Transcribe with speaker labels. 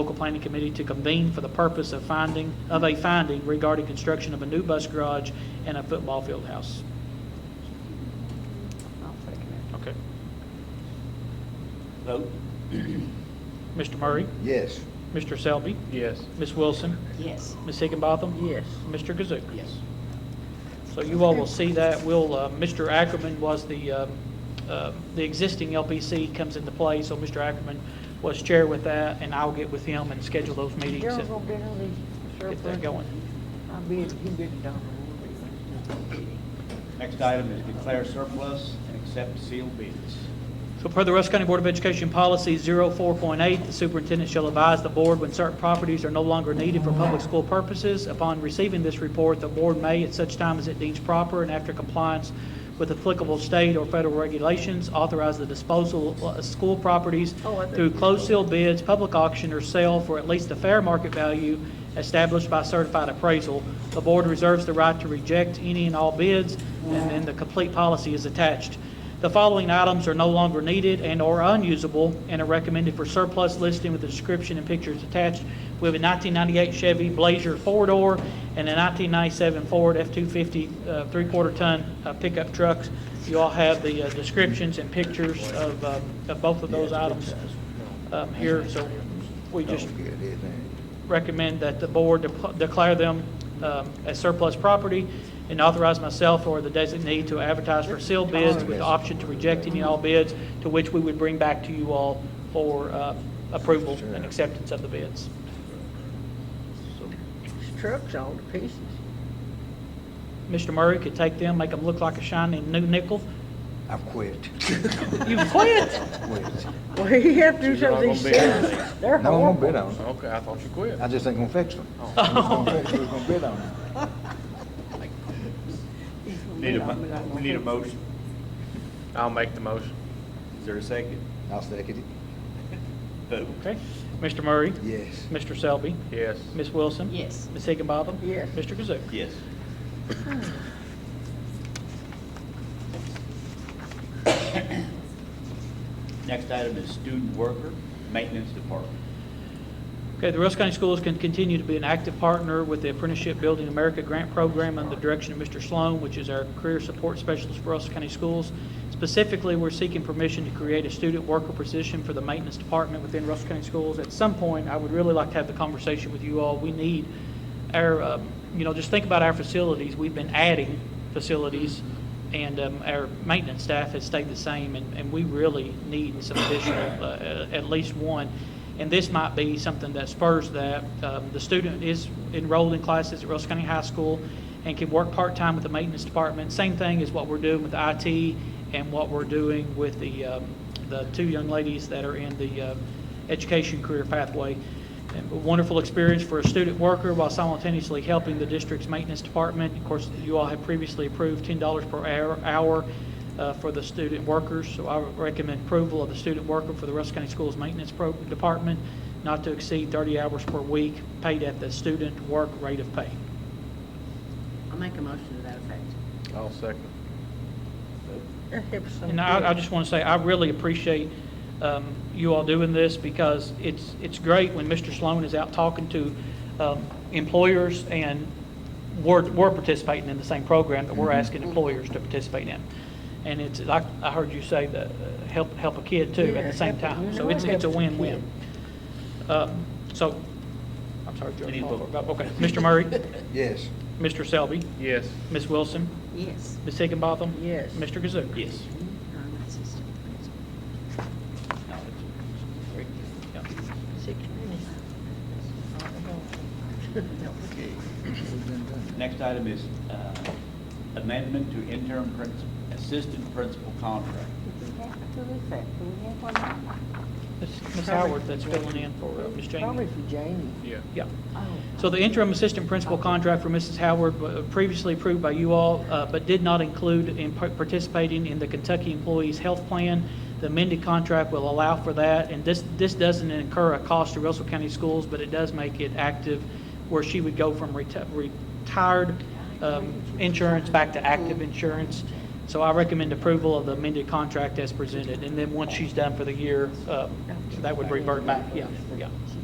Speaker 1: local planning committee to convene for the purpose of finding, of a finding regarding construction of a new bus garage and a football field house.
Speaker 2: I'll second
Speaker 1: Okay.
Speaker 3: Vote?
Speaker 1: Mr. Murray?
Speaker 4: Yes.
Speaker 1: Mr. Selby?
Speaker 3: Yes.
Speaker 1: Ms. Wilson?
Speaker 2: it. Yes.
Speaker 1: Ms. Higginbotham?
Speaker 2: Yes.
Speaker 1: Mr. Kazook?
Speaker 3: Yes.
Speaker 1: So you all will see that. Will, uh, Mr. Ackerman was the, um, uh, the existing LPC comes into play, so Mr. Ackerman was chair with that, and I'll get with him and schedule those meetings
Speaker 2: Daryl's
Speaker 1: and
Speaker 2: gonna be on the
Speaker 1: get that
Speaker 2: surplus.
Speaker 1: going.
Speaker 2: I'll be, he'll be at the Donald.
Speaker 3: Next item is declare surplus and accept sealed bids.
Speaker 1: So per the Russell County Board of Education Policy 04.8, the superintendent shall advise the board when certain properties are no longer needed for public school purposes. Upon receiving this report, the board may, at such time as it deems proper and after compliance with applicable state or federal regulations, authorize the disposal of school properties
Speaker 2: Oh, I think-
Speaker 1: through closed seal bids, public auction, or sale for at least the fair market value established by certified appraisal. The board reserves the right to reject any and all bids, and then the complete policy is attached. The following items are no longer needed and/or unusable and are recommended for surplus listing with the description and pictures attached. We have a 1998 Chevy Blazer four-door and a 1997 Ford F-250 uh, three-quarter ton uh, pickup trucks. You all have the uh, descriptions and pictures of um, of both of those items um, here, so we just
Speaker 4: Don't get it, man.
Speaker 1: recommend that the board de- declare them um, as surplus property and authorize myself or the designee to advertise for sealed bids with the option to reject any and all bids, to which we would bring back to you all for uh, approval and acceptance of the bids.
Speaker 2: His truck's all to pieces.
Speaker 1: Mr. Murray could take them, make them look like a shining new nickel.
Speaker 4: I've quit.
Speaker 1: You quit?
Speaker 4: Quit.
Speaker 2: Well, he have to do
Speaker 5: So you're
Speaker 2: some
Speaker 5: not
Speaker 2: of these
Speaker 5: gonna bid on
Speaker 2: things. They're
Speaker 4: No, I'm gonna
Speaker 2: horrible.
Speaker 4: bid on it.
Speaker 5: Okay, I thought you quit.
Speaker 4: I just ain't gonna fix them.
Speaker 1: Oh.
Speaker 4: Who's gonna fix 'em? Who's gonna bid on it?
Speaker 3: Need a, mo- we need a motion.
Speaker 5: I'll make the motion.
Speaker 3: Is there a second?
Speaker 4: I'll second it.
Speaker 3: Vote?
Speaker 1: Okay. Mr. Murray?
Speaker 4: Yes.
Speaker 1: Mr. Selby?
Speaker 5: Yes.
Speaker 1: Ms. Wilson?
Speaker 2: Yes.
Speaker 1: Ms. Higginbotham?
Speaker 2: Yes.
Speaker 1: Mr. Kazook?
Speaker 3: Yes. Next item is student worker, maintenance department.
Speaker 1: Okay, the Russell County Schools can continue to be an active partner with the Apprenticeship Building America Grant Program under the direction of Mr. Sloan, which is our career support specialist for Russell County Schools. Specifically, we're seeking permission to create a student worker position for the maintenance department within Russell County Schools. At some point, I would really like to have the conversation with you all. We need our, um, you know, just think about our facilities. We've been adding facilities, and um, our maintenance staff has stayed the same, and and we really need some additional, uh, uh, at least one. And this might be something that spurs that. Um, The student is enrolled in classes at Russell County High School and can work part-time with the maintenance department. Same thing as what we're doing with IT and what we're doing with the, um, the two young ladies that are in the uh, education career pathway. And a Wonderful experience for a student worker while simultaneously helping the district's maintenance department. Of course, you all have previously approved $10 per hour- hour uh, for the student workers, so I would recommend approval of the student worker for the Russell County Schools Maintenance Pro- Department, not to exceed 30 hours per week, paid at the student work rate of pay.
Speaker 6: I'll make a motion to that effect.
Speaker 5: I'll second.
Speaker 2: That helps some.
Speaker 1: And I, I
Speaker 2: kids.
Speaker 1: just want to say, I really appreciate um, you all doing this because it's, it's great when Mr. Sloan is out talking to um, employers and we're, we're participating in the same program that
Speaker 2: Mm-hmm.
Speaker 1: we're asking employers to participate in. And it's, like, I heard you say that, uh, help, help a kid too at
Speaker 2: Yeah,
Speaker 1: the same
Speaker 2: help a-
Speaker 1: time.
Speaker 2: you
Speaker 1: So
Speaker 2: know,
Speaker 1: it's,
Speaker 2: help
Speaker 1: it's a
Speaker 2: a kid.
Speaker 1: win-win. Um, So, I'm sorry, Joe.
Speaker 3: Any vote?
Speaker 1: Okay, Mr. Murray,
Speaker 4: Yes.
Speaker 1: Mr. Selby,
Speaker 5: Yes.
Speaker 1: Ms. Wilson,
Speaker 6: Yes.
Speaker 1: Ms. Higginbotham.
Speaker 2: Yes.
Speaker 1: Mr. Kazook.
Speaker 3: Yes.
Speaker 6: Um, that's just-
Speaker 3: No, it's- great.
Speaker 1: Yeah.
Speaker 2: Six minutes.
Speaker 3: Next item is uh, amendment to interim principal, assistant principal contract.
Speaker 1: It's Ms. Howard that's filling in for uh, Ms.
Speaker 2: Probably
Speaker 1: Jamie.
Speaker 2: for Jamie.
Speaker 5: Yeah.
Speaker 1: Yeah.
Speaker 2: Oh.
Speaker 1: So the interim assistant principal contract for Mrs. Howard wa- previously approved by you all, uh, but did not include in par- participating in the Kentucky Employees Health Plan. The amended contract will allow for that, and this, this doesn't incur a cost to Russell County Schools, but it does make it active where she would go from reti- retired um, insurance back to active insurance. So I recommend approval of the amended contract as presented, and then once she's done for the year, uh, that would revert back, yeah, yeah.
Speaker 2: She